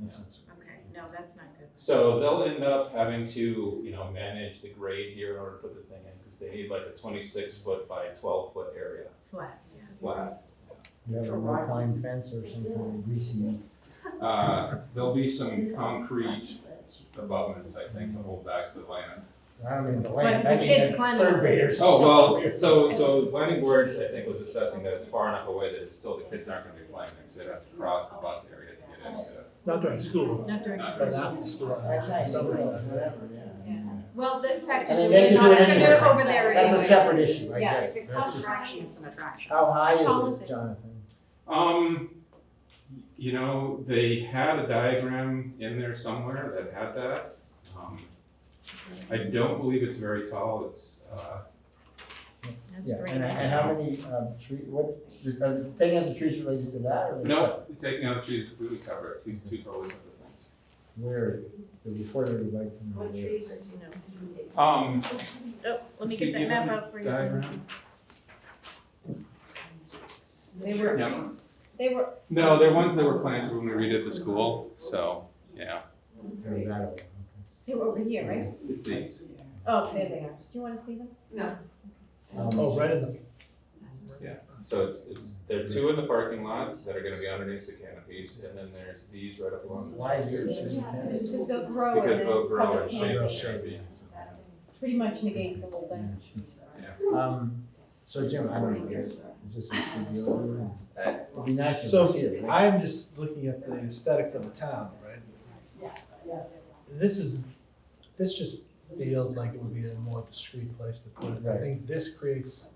Makes sense. Okay, no, that's not good. So they'll end up having to, you know, manage the grade here in order to put the thing in, because they need like a twenty-six foot by twelve foot area Flat, yeah. flat. You have It's a a wood rock. pine fence or some kind of greasy. Uh, there'll be some concrete abutments, I think, to hold back the land. uh, I mean, the But land, I mean, it's the climbing. third graders. Oh, well, so, so planning board, I think, was assessing that it's far enough away that it's still, the kids aren't gonna be playing there, because they'd have to cross the bus area to get into it. Not during school. Not during Not But school. not the school. That's nice. Summer. Whatever, yeah. Yeah. Well, the fact And is, then that they're they can not do gonna it do anyway. it over there That's a anyway. separate issue, right Yeah, there. If it's That's not just- attraction, it's an attraction. How high tall is is it, it? Jonathan? Um, you know, they had a diagram in there somewhere that had that. Um, I don't believe it's very tall, it's, uh, That's Yeah, and, and drainage. how many, um, tree, what, are the thing of the trees related to that or? is that no, taking out the trees completely separate, two, two totally separate things. Where, the reporter would like to know. What where. trees are, do you Um, Oh, let me Did get you that map have out for you. diagram? know? They were. Yeah. They were, No, they're ones that were planted when we redid the school, so, yeah, Or that, okay. they were over here, right? it's these. Oh, there they are. Do you wanna see this? No. Um, Oh, right in the, So it's, it's, there are two in the parking lot that are gonna be underneath the canopies, and then there's these right up along the. Why is it? This is the grow Oh, and Because then they'll grow southern and shape the canopy. canopy. Pretty much negates the whole thing. Um, so Jim, I don't know, is this a video? It'd be nice if So- you see it, right? I'm just looking at the aesthetic for the town, right? This is, this just feels like it would be a more discreet place to put it. I Right. think this creates,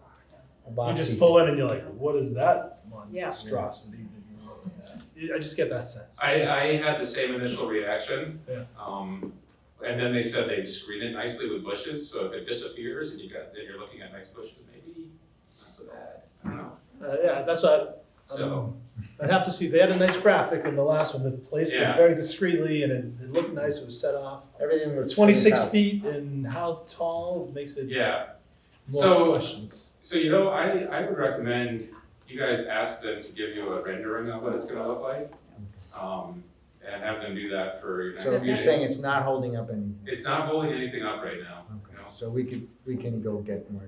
A you box just seat. pull in and you're like, what is that Yeah. monstrosity that you're looking at? It- I just get that sense. I, I had the same initial reaction. Yeah. Um, and then they said they'd screen it nicely with bushes, so if it disappears and you got, then you're looking at nice bushes, maybe not so bad, I don't know. Uh, yeah, that's what, I- So, I'd have to see, they had a nice graphic in the last one, that placed it Yeah. very discreetly and it, it looked nice, it was set off. Everything looks. Twenty-six fantastic. feet and how tall makes it yeah, more So- questions. so you know, I, I would recommend you guys ask them to give you a rendering of what it's gonna look like. Um, and have them do that for your next So meeting. you're saying it's not holding up anything? It's not holding anything up right now, you Okay, know? so we could, we can go get more.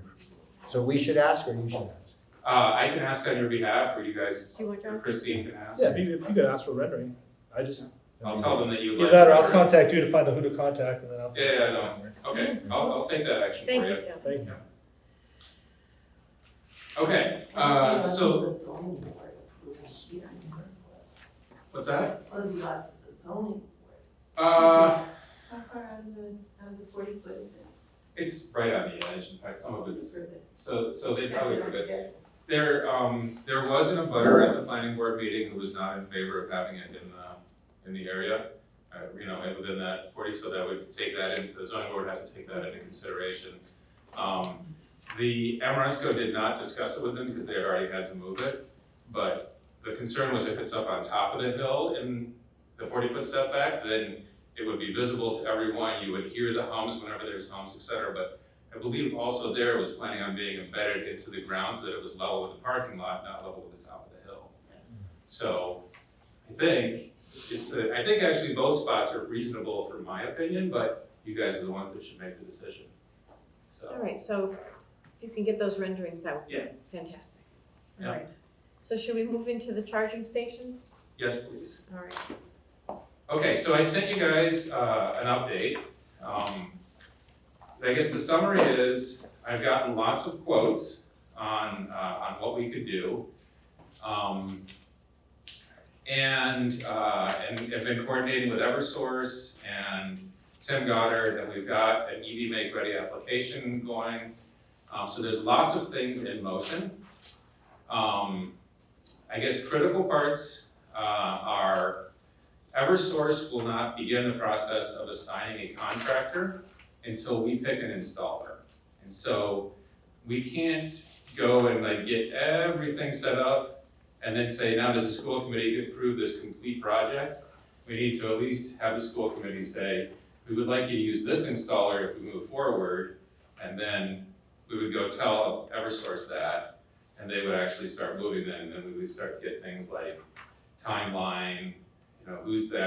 So we should ask or you should ask? Uh, I can ask on your behalf, or you guys, Do you want to? Christine can ask. Yeah, if you, if you could ask for rendering, I just, I'll tell them that you. either like- that or I'll contact you to find out who to contact and then I'll. Yeah, yeah, no. Okay, I'll, I'll take that action for you. Thank you, Joe. Thank you. Okay, uh, so, Lots of the zoning board approval sheet on your list. what's that? What are the lots of the zoning board? Uh, How far out of the, out of the forty foot is it? it's right on the edge, in fact, some of it's, so, so they Step probably down could. step. There, um, there was an abutter at the planning board meeting who was not in favor of having it in the, in the area. Uh, you know, and within that forty, so that would take that in, the zoning board would have to take that into consideration. Um, the Amoresco did not discuss it with them because they had already had to move it. But the concern was if it's up on top of the hill in the forty foot setback, then it would be visible to everyone. You would hear the hums whenever there's hums, et cetera. But I believe also there was planning on being embedded into the ground so that it was level with the parking lot, not level with the top of the hill. So I think it's, a- I think actually both spots are reasonable for my opinion, but you guys are the ones that should make the decision. All So, right, so if you can get those renderings, that would be Yeah. fantastic. Yeah. All right. So should we move into the charging stations? yes, please. All right. Okay, so I sent you guys, uh, an update. Um, I guess the summary is, I've gotten lots of quotes on, uh, on what we could do. Um, and, uh, and have been coordinating with Eversource and Tim Goddard, and we've got an EV Make Ready application going. Um, so there's lots of things in motion. Um, I guess critical parts, uh, are Eversource will not begin the process of assigning a contractor until we pick an installer. And so we can't go and like get everything set up and then say, now does the school committee approve this complete project? We need to at least have the school committee say, we would like you to use this installer if we move forward. And then we would go tell Eversource that, and they would actually start moving then, and then we would start to get things like timeline, you know, who's the